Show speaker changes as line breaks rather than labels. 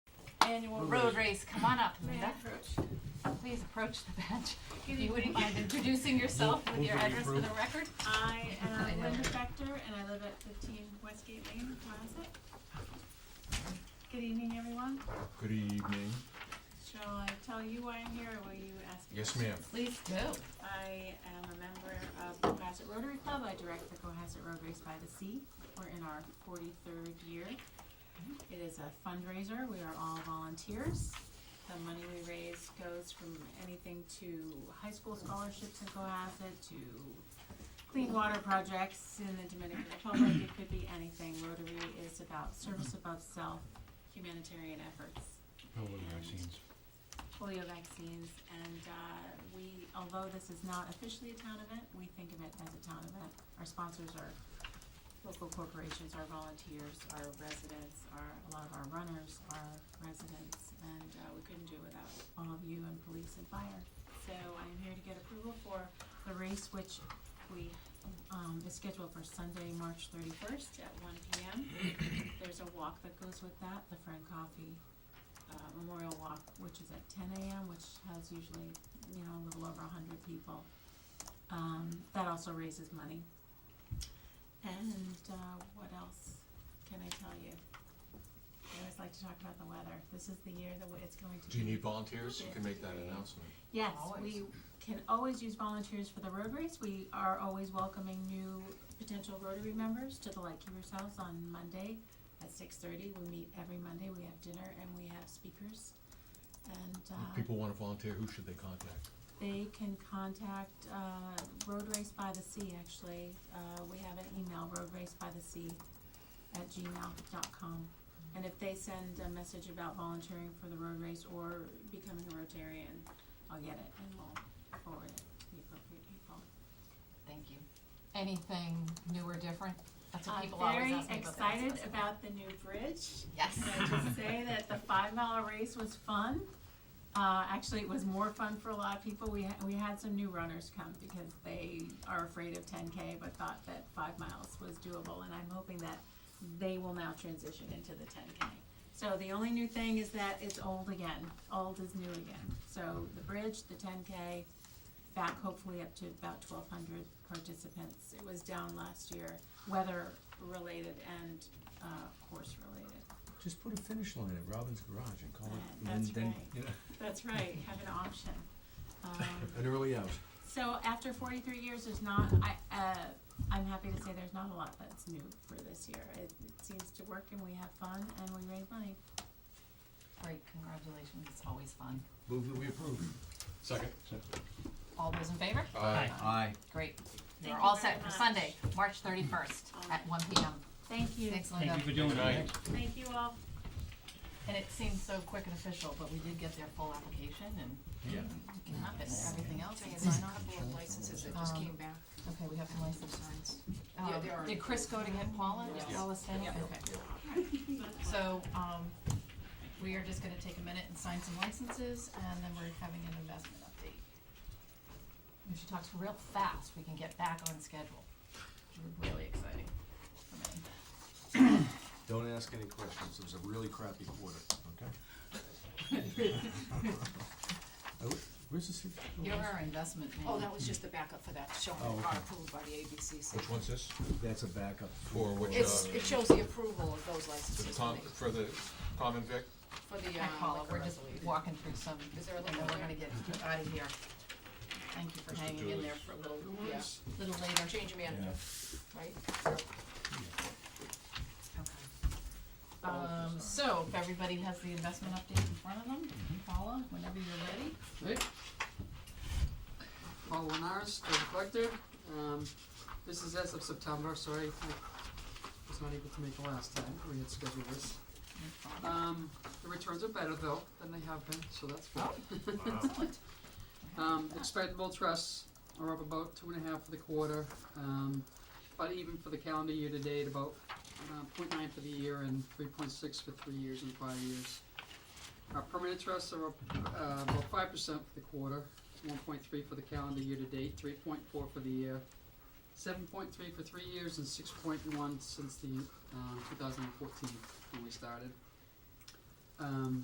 annual road race. Come on up, Linda. Please approach the bench. If you wouldn't mind introducing yourself with your address for the record.
I am Linda Spector, and I live at fifteen Westgate Lane, Cohasset. Good evening, everyone.
Good evening.
Shall I tell you why I'm here, or will you ask me?
Yes, ma'am.
Please do.
I am a member of the Cohasset Rotary Club. I direct the Cohasset Road Race by the Sea. We're in our forty-third year. It is a fundraiser. We are all volunteers. The money we raise goes from anything to high school scholarships in Cohasset to clean water projects in the Dominican Republic. It could be anything. Rotary is about service above self, humanitarian efforts
Hello, vaccines.
polio vaccines, and uh, we, although this is not officially a town event, we think of it as a town event. Our sponsors are local corporations, our volunteers, our residents, our, a lot of our runners are residents, and uh, we couldn't do it without all of you and police and fire. So I'm here to get approval for the race, which we, um, is scheduled for Sunday, March thirty-first at one P M. There's a walk that goes with that, the Friend Coffee uh, Memorial Walk, which is at ten AM, which has usually, you know, a little over a hundred people. Um, that also raises money. And, uh, what else can I tell you? I always like to talk about the weather. This is the year that we- it's going to be.
Do you need volunteers? You can make that announcement.
Yes,
Always.
we can always use volunteers for the road race. We are always welcoming new potential Rotary members to the Lightkeepers House on Monday at six thirty. We meet every Monday, we have dinner and we have speakers. And,
If
uh,
people want to volunteer, who should they contact?
they can contact, uh, Road Race by the Sea, actually. Uh, we have an email, roadracebythesea at gmail dot com. And if they send a message about volunteering for the road race or becoming a Rotarian, I'll get it and we'll forward it to the appropriate people.
Thank you. Anything new or different? That's what
I'm
people always
very
ask me about. the
excited
Rasmus.
about the new bridge.
Yes.
Can I just say that the five mile race was fun? Uh, actually, it was more fun for a lot of people. We had, we had some new runners come because they are afraid of ten K, but thought that five miles was doable, and I'm hoping that they will now transition into the ten K. So the only new thing is that it's old again. Old is new again. So the bridge, the ten K, back hopefully up to about twelve hundred participants. It was down last year, weather related and, uh, course related.
Just put a finish line at Robin's Garage and call it.
That's
and then,
right.
you know,
That's right, have an option. Um,
An early out.
So after forty-three years, there's not, I, uh, I'm happy to say there's not a lot that's new for this year. It it seems to work and we have fun and we raise money.
Great, congratulations. It's always fun.
Move that we approve.
Second.
All those in favor?
Aye.
Aye.
Great.
Thank
You're
you
all
very
set for
much.
Sunday, March thirty-first at one P M.
Thank you.
Thanks, Linda.
Thank you for doing
Aye.
that.
Thank you all.
And it seems so quick and official, but we did get their full application and
Yeah.
it can happen, everything else
Thing
is
is, there's
fine.
a couple of licenses that just
Um,
came back.
Okay, we have some license signs.
Yeah,
Um,
there are.
Did Chris go to get Paula? Did
Yeah.
Paula stay?
Yeah.
Okay. So, um, we are just gonna take a minute and sign some licenses and then we're having an investment update. If she talks real fast, we can get back on schedule. Really exciting for me.
Don't ask any questions. It was a really crappy quarter. Okay. Oh, Where's the secret?
You're our investment man.
Oh, that was just the backup for that, showing
Oh,
the car
okay.
approved by the ABCC.
Which one's this?
That's a backup.
For which,
It's,
uh,
it shows the approval of those
For the
licenses
Tom,
when they-
for the common vic?
for the,
Hi, Paula,
uh,
we're just walking through some,
Is there a
and
little
then we're
more?
gonna get out of here. Thank you for
Mr.
hanging in
Dooley.
there for a little,
yeah,
little later.
change manager, right?
Okay. Um, so, if everybody has the investment update in front of them, Paula, whenever you're ready.
Right. Paul Linares, the collector, um, this is as of September, sorry, I was not able to make the last time, we had scheduled this.
No problem.
Um, the returns are better though than they have been, so that's good.
Excellent.
Um, expendable trusts are up about two and a half for the quarter, um, but even for the calendar year to date, about, uh, point nine for the year and three point six for three years and five years. Our permanent trusts are up, uh, about five percent for the quarter, one point three for the calendar year to date, three point four for the year, seven point three for three years and six point uh, one since the, um, two thousand and fourteen when we started. Um,